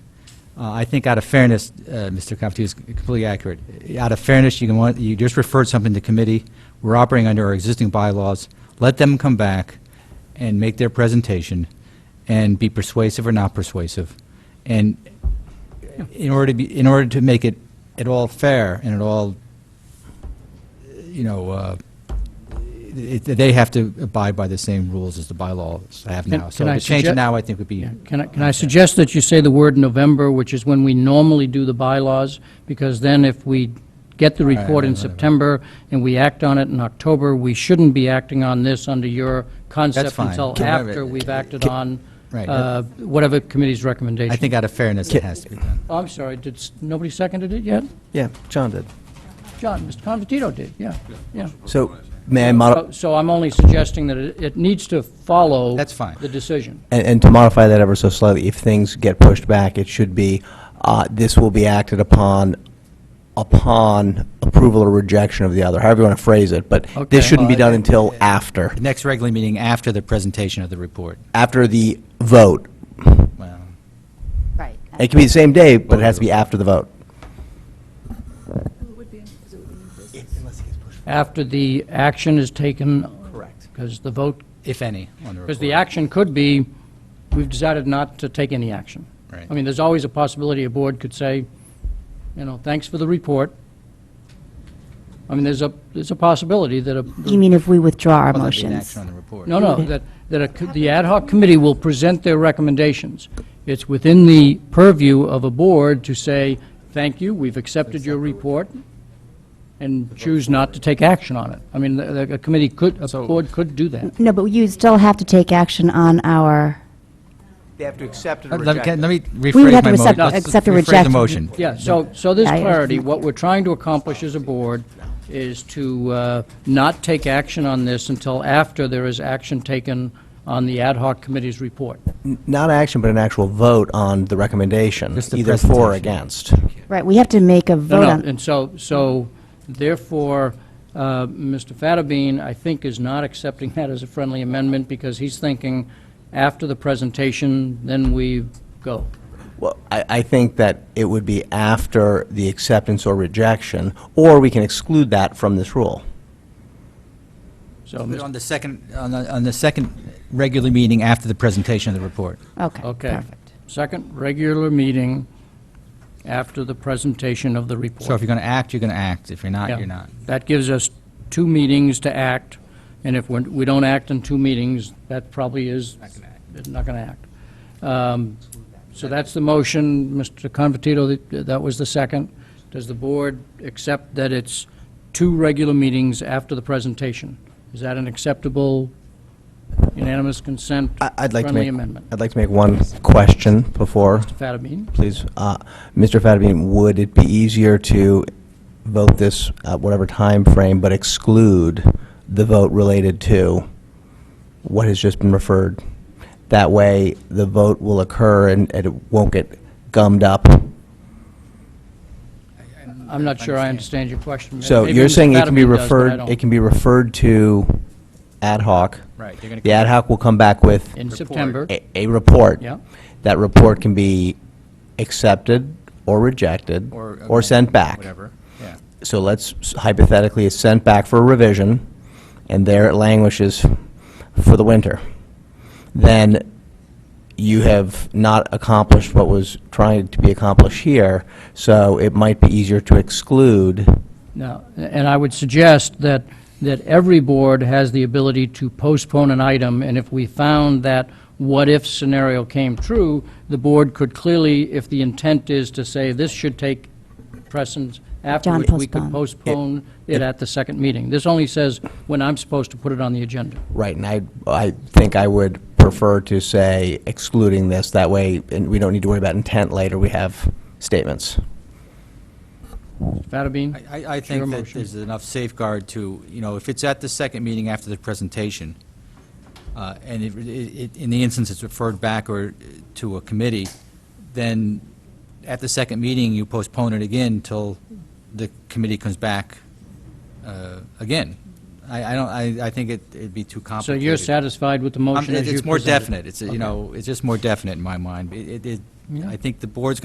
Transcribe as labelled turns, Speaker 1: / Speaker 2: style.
Speaker 1: Uh, I think out of fairness, uh, Mr. Confortito is completely accurate. Out of fairness, you can want, you just referred something to committee. We're operating under our existing bylaws. Let them come back and make their presentation and be persuasive or not persuasive. And in order to be, in order to make it at all fair and at all, you know, uh, it- they have to abide by the same rules as the bylaws have
Speaker 2: Can-
Speaker 1: now.
Speaker 2: can I
Speaker 1: So to change it
Speaker 2: suggest-
Speaker 1: now, I think would be.
Speaker 2: Yeah, Can I, can I suggest that you say the word November, which is when we normally do the bylaws? Because then if we get the report in September and we act on it in October, we shouldn't be acting on this under your concept
Speaker 1: fine.
Speaker 2: until
Speaker 1: Can-
Speaker 2: after we've acted on
Speaker 1: Right.
Speaker 2: uh, whatever committee's recommendation.
Speaker 1: I think out of fairness, it has to be done.
Speaker 2: Oh, I'm sorry, did, s- nobody seconded it yet?
Speaker 3: Yeah, John did.
Speaker 2: John, Mr. Convertito did, yeah, yeah.
Speaker 3: So, may I modify,
Speaker 2: So- So I'm only suggesting that it, it needs to follow.
Speaker 1: That's fine.
Speaker 2: The decision.
Speaker 3: and and to modify that ever so slightly, if things get pushed back, it should be, uh, this will be acted upon, upon approval or rejection of the other, however you want to phrase it, but
Speaker 2: Okay.
Speaker 3: this shouldn't be
Speaker 1: Uh,
Speaker 3: done until after,
Speaker 1: The next regular meeting after the presentation of the report.
Speaker 3: after the vote.
Speaker 1: Well,
Speaker 4: Right.
Speaker 3: It can be the same day, but it has to be after the vote.
Speaker 2: After the action is taken.
Speaker 3: Correct.
Speaker 2: Because the vote
Speaker 1: If any, on the report.
Speaker 2: Because the action could be, we've decided not to take any action.
Speaker 1: Right.
Speaker 2: I mean, there's always a possibility a board could say, you know, thanks for the report. I mean, there's a, there's a possibility that a,
Speaker 4: You mean if we withdraw our
Speaker 1: Well, Oh, that'd be an
Speaker 4: motions?
Speaker 1: action on the report.
Speaker 2: no, no, that, that a co- the ad hoc committee will present their recommendations. It's within the purview of a board to say, thank you, we've accepted your report, and choose not to take action on it. I mean, the- the- a committee could, a board could do that.
Speaker 4: No, but you still have to take action on our,
Speaker 3: They have to accept it
Speaker 1: Let let me let me rephrase my motion.
Speaker 4: We would have to accept-
Speaker 1: Let's
Speaker 4: accept or
Speaker 1: rephrase the
Speaker 4: reject.
Speaker 1: motion.
Speaker 2: Yeah, so, so there's
Speaker 4: Yeah, yeah.
Speaker 2: clarity. What we're trying to accomplish as a board is to uh, not take action on this until after there is action taken on the ad hoc committee's report.
Speaker 3: Not action, but an actual vote on the recommendation,
Speaker 1: Just the
Speaker 3: either for or
Speaker 1: presentation.
Speaker 3: against.
Speaker 4: right, we have to make a
Speaker 2: No,
Speaker 4: vote
Speaker 2: no,
Speaker 4: on,
Speaker 2: and so, so therefore, uh, Mr. Fattabine, I think, is not accepting that as a friendly amendment because he's thinking after the presentation, then we go.
Speaker 3: Well, I, I think that it would be after the acceptance or rejection, or we can exclude that from this rule.
Speaker 2: So,
Speaker 1: Put it
Speaker 2: Mr.
Speaker 1: On the second, on the on the second regular meeting after the presentation of the report.
Speaker 4: okay,
Speaker 2: okay.
Speaker 4: perfect.
Speaker 2: Second regular meeting after the presentation of the report.
Speaker 1: So if you're going to act, you're going to act. If you're not,
Speaker 2: Yeah.
Speaker 1: you're not.
Speaker 2: That gives us two meetings to act, and if we're- we don't act in two meetings, that probably is... Not going to act. Um, So that's the motion, Mr. Convertito, that- that was the second. Does the board accept that it's two regular meetings after the presentation? Is that an acceptable unanimous consent
Speaker 3: I- I'd like to
Speaker 2: friendly
Speaker 3: make,
Speaker 2: amendment?
Speaker 3: I'd like to make one question before,
Speaker 2: Fatabeen?
Speaker 3: please. Uh, Mr. Fattabine, would it be easier to vote this at whatever time frame, but exclude the vote related to what has just been referred? That way, the vote will occur and and it won't get gummed up.
Speaker 2: I'm not sure I understand your question.
Speaker 3: So
Speaker 2: Maybe
Speaker 3: you're
Speaker 2: Mr.
Speaker 3: saying it can be
Speaker 2: Fatabeen does, but I
Speaker 3: referred,
Speaker 2: don't.
Speaker 3: it can be referred to ad hoc?
Speaker 1: Right, they're gonna
Speaker 3: The ad hoc will come back with
Speaker 2: In September.
Speaker 3: a, a report.
Speaker 2: Yeah.
Speaker 3: That report can be accepted or rejected or sent back.
Speaker 1: Whatever, yeah.
Speaker 3: So let's hypothetically, it's sent back for a revision, and there it languishes for the winter. Then you have not accomplished what was trying to be accomplished here, so it might be easier to exclude
Speaker 2: No, and I would suggest that, that every board has the ability to postpone an item, and if we found that what-if scenario came true, the board could clearly, if the intent is to say this should take precedence afterwards, we could
Speaker 4: postpone.
Speaker 2: postpone it at the second meeting. This only says when I'm supposed to put it on the agenda.
Speaker 3: Right, and I, I think I would prefer to say excluding this, that way, and we don't need to worry about intent later, we have statements.
Speaker 2: Fatabeen?
Speaker 1: I- I, I
Speaker 2: your
Speaker 1: think that
Speaker 2: motion.
Speaker 1: there's enough safeguard to, you know, if it's at the second meeting after the presentation, uh, and if, it- it- in the instance it's referred back or to a committee, then at the second meeting, you postpone it again till the committee comes back uh, again. I, I don't, I, I think it- it'd be too
Speaker 2: So
Speaker 1: complicated.
Speaker 2: you're satisfied with the
Speaker 1: I'm-
Speaker 2: motion as you
Speaker 1: Um, It's more
Speaker 2: presented?
Speaker 1: definite, it's, you know, it's just more definite in my mind. It- It, it, I think the board's